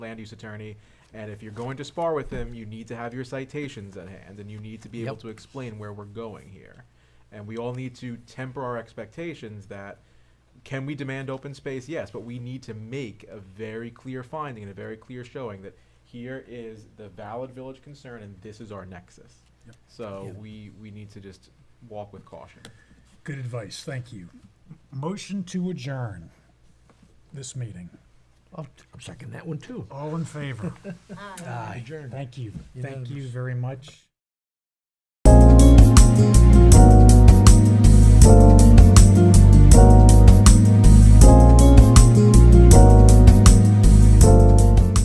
land use attorney, and if you're going to spar with him, you need to have your citations at hand, and you need to be able Yep. to explain where we're going here. And we all need to temper our expectations that, can we demand open space? Yes, but we need to make a very clear finding and a very clear showing that here is the valid village concern, and this is our nexus. Yep. So Yeah. we, we need to just walk with caution. Good advice, thank you. Motion to adjourn this meeting. I'll I'll second that one too. All in favor? Aye. Thank you, thank you Unanimous. very much.